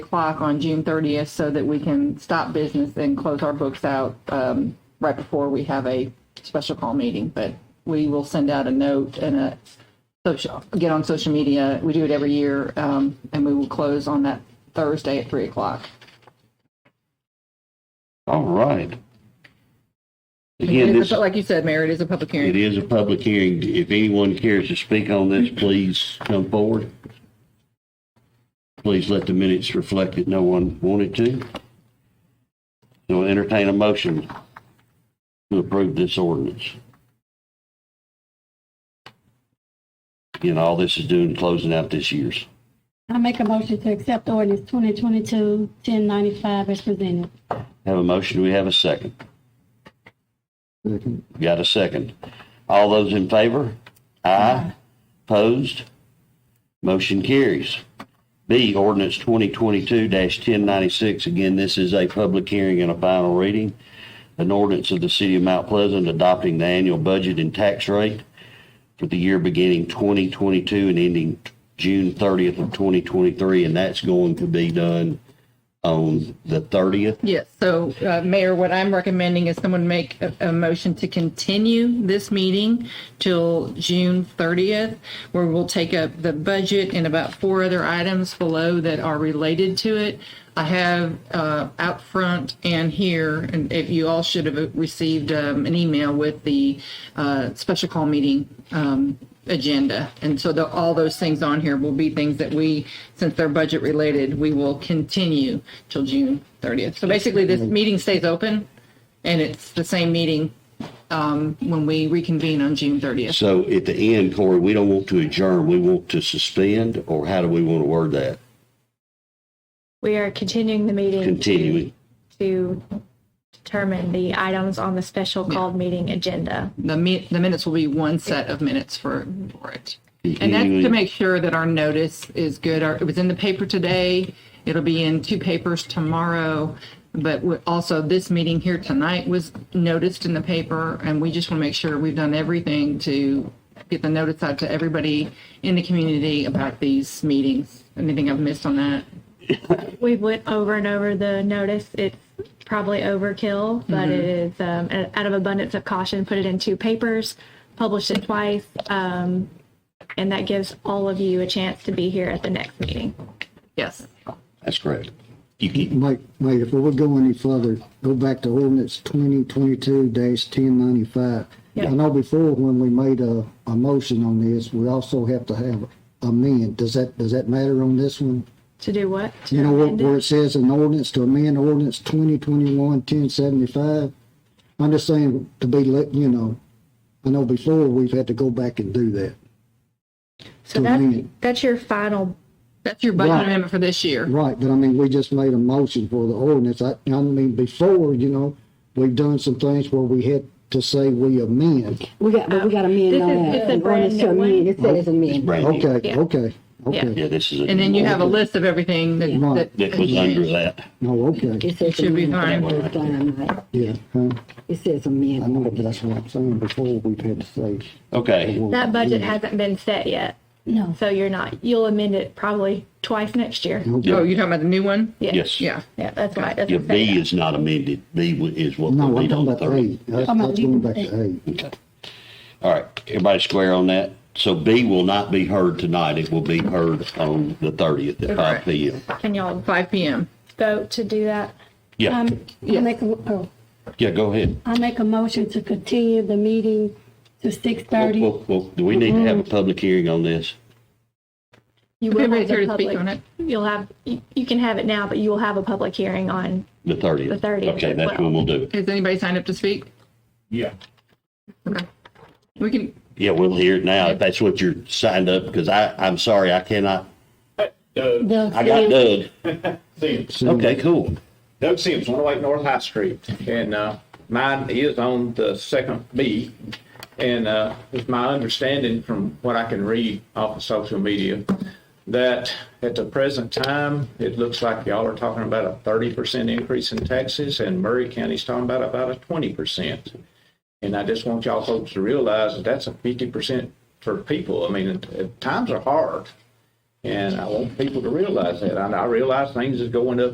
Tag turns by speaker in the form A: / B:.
A: o'clock on June thirtieth so that we can stop business and close our books out um, right before we have a special call meeting. But we will send out a note and a social, get on social media. We do it every year, um, and we will close on that Thursday at three o'clock.
B: All right. Again,
A: It is
B: this,
A: a- Like you said, Mayor, it is a public
B: it
A: hearing.
B: is a public hearing. If anyone cares to speak on this, please come forward. Please let the minutes reflect that no one wanted to. So entertain a motion to approve this ordinance. Again, all this is doing, closing out this year's.
C: I make a motion to accept ordinance 2022-1095 as presented.
B: Have a motion, Do we have a second. Got a second. All those in favor? Aye. Opposed? Motion carries. B, ordinance 2022-1096, again, this is a public hearing and a final reading. An ordinance of the city of Mount Pleasant adopting the annual budget and tax rate for the year beginning 2022 and ending June 30th of 2023, and that's going to be done on the 30th.
A: Yes, so, uh, Mayor, what I'm recommending is someone make a, a motion to continue this meeting till June 30th, where we'll take up the budget and about four other items below that are related to it. I have uh, out front and here, and if you all should have received um, an email with the uh, special call meeting um, agenda. And so the, all those things on here will be things that we, since they're budget related, we will continue till June 30th. So basically, this meeting stays open, and it's the same meeting um, when we reconvene on June 30th.
B: So at the end, Corey, we don't want to adjourn, we want to suspend, or how do we want to word that?
D: We are continuing the meeting.
B: Continuing.
D: To determine the items on the special called meeting agenda.
A: The mi- the minutes will be one set of minutes for for it. And that's to make sure that our notice is good. Our- It was in the paper today. It'll be in two papers tomorrow. But we- also, this meeting here tonight was noticed in the paper, and we just want to make sure we've done everything to get the notice out to everybody in the community about these meetings. Anything I've missed on that?
D: We went over and over the notice. It's probably overkill, but
A: Mm-hmm.
D: it is, um, a- out of abundance of caution, put it in two papers, published it twice. Um, and that gives all of you a chance to be here at the next meeting.
A: Yes.
B: That's correct. You can,
E: Mike, Mike, if we go any further, go back to ordinance twenty twenty-two ten ninety-five. I know before when we made a, a motion on this, we also have to have amend. Does that, does that matter on this one?
D: To do what? To
E: You know, where,
D: amend it?
E: where it says an ordinance to amend ordinance twenty twenty-one ten seventy-five? I'm just saying to be, let you know, I know before we've had to go back and do that.
D: So
E: to
D: that,
E: amend.
D: that's your final
A: That's your budget
E: Right.
A: amendment for this year.
E: Right, but I mean, we just made a motion for the ordinance. I, I mean, before, you know, we've done some things where we had to say we amend.
C: We got, but we got to amend
D: This
C: on
D: is-
C: that.
D: it's a
C: An
D: brand
C: ordinance to
D: new one.
C: amend. It said it's
B: it's
C: amend.
B: brand new.
E: Okay,
D: Yeah.
E: okay,
D: Yeah.
E: okay.
B: Yeah, this is,
A: And
B: a-
A: then you have a list of everything that.
E: Right.
B: that was under that.
E: No, okay,
C: It says
A: Should be fine.
C: amend the first time, right?
E: yeah, huh?
C: It says
E: I
C: amend.
E: know, but that's what I'm saying. Before, we've had to say.
B: Okay,
E: well,
D: That budget hasn't been set yet,
C: No.
D: so you're not, you'll amend it probably twice next year.
A: Oh, you're talking about the new one?
D: Yeah.
B: yes.
A: Yeah.
D: Yeah, that's why it
B: Yeah,
D: doesn't say
B: B
D: that.
B: is not amended, B w- is what
E: No,
B: will
E: I'm
B: be on
E: talking
B: the
E: about eight.
B: 30th.
E: That's,
C: I'm
E: that's going
C: leaving
E: back to eight.
B: Okay. All right, everybody square on that? So B will not be heard tonight, it will be heard on the 30th at
A: Correct.
B: 5 PM.
D: Can y'all
A: Five PM.
D: vote to do that?
B: Yeah,
C: Um, I make, a- oh,
B: yeah, go ahead.
C: I make a motion to continue the meeting to
B: Well,
C: 6:30.
B: well, well, Do we need to have a public hearing on this?
D: You
A: If
D: will
A: anybody's
D: have
A: here
D: the
A: to speak
D: public-
A: on it.
D: You'll have, you you can have it now, but you will have a public hearing on,
B: The 30th?
D: The 30th
B: Okay,
D: as
B: that's when we'll
D: well.
B: do it.
A: Has anybody signed up to speak?
F: Yeah.
A: Okay. We can,
B: Yeah, we'll hear it now if that's what you're signed up, because I, I'm sorry, I cannot,
F: Doug,
B: I got Doug.
F: Sims.
B: Okay, cool.
F: Doug Sims, 108 North High Street. And uh, mine is on the second B. And uh, it's my understanding from what I can read off of social media that at the present time, it looks like y'all are talking about a 30% increase in taxes and Murray County's talking about about a 20%. And I just want y'all folks to realize that that's a 50% for people. I mean, it- it- times are hard. And I want people to realize that. And I realize things is going up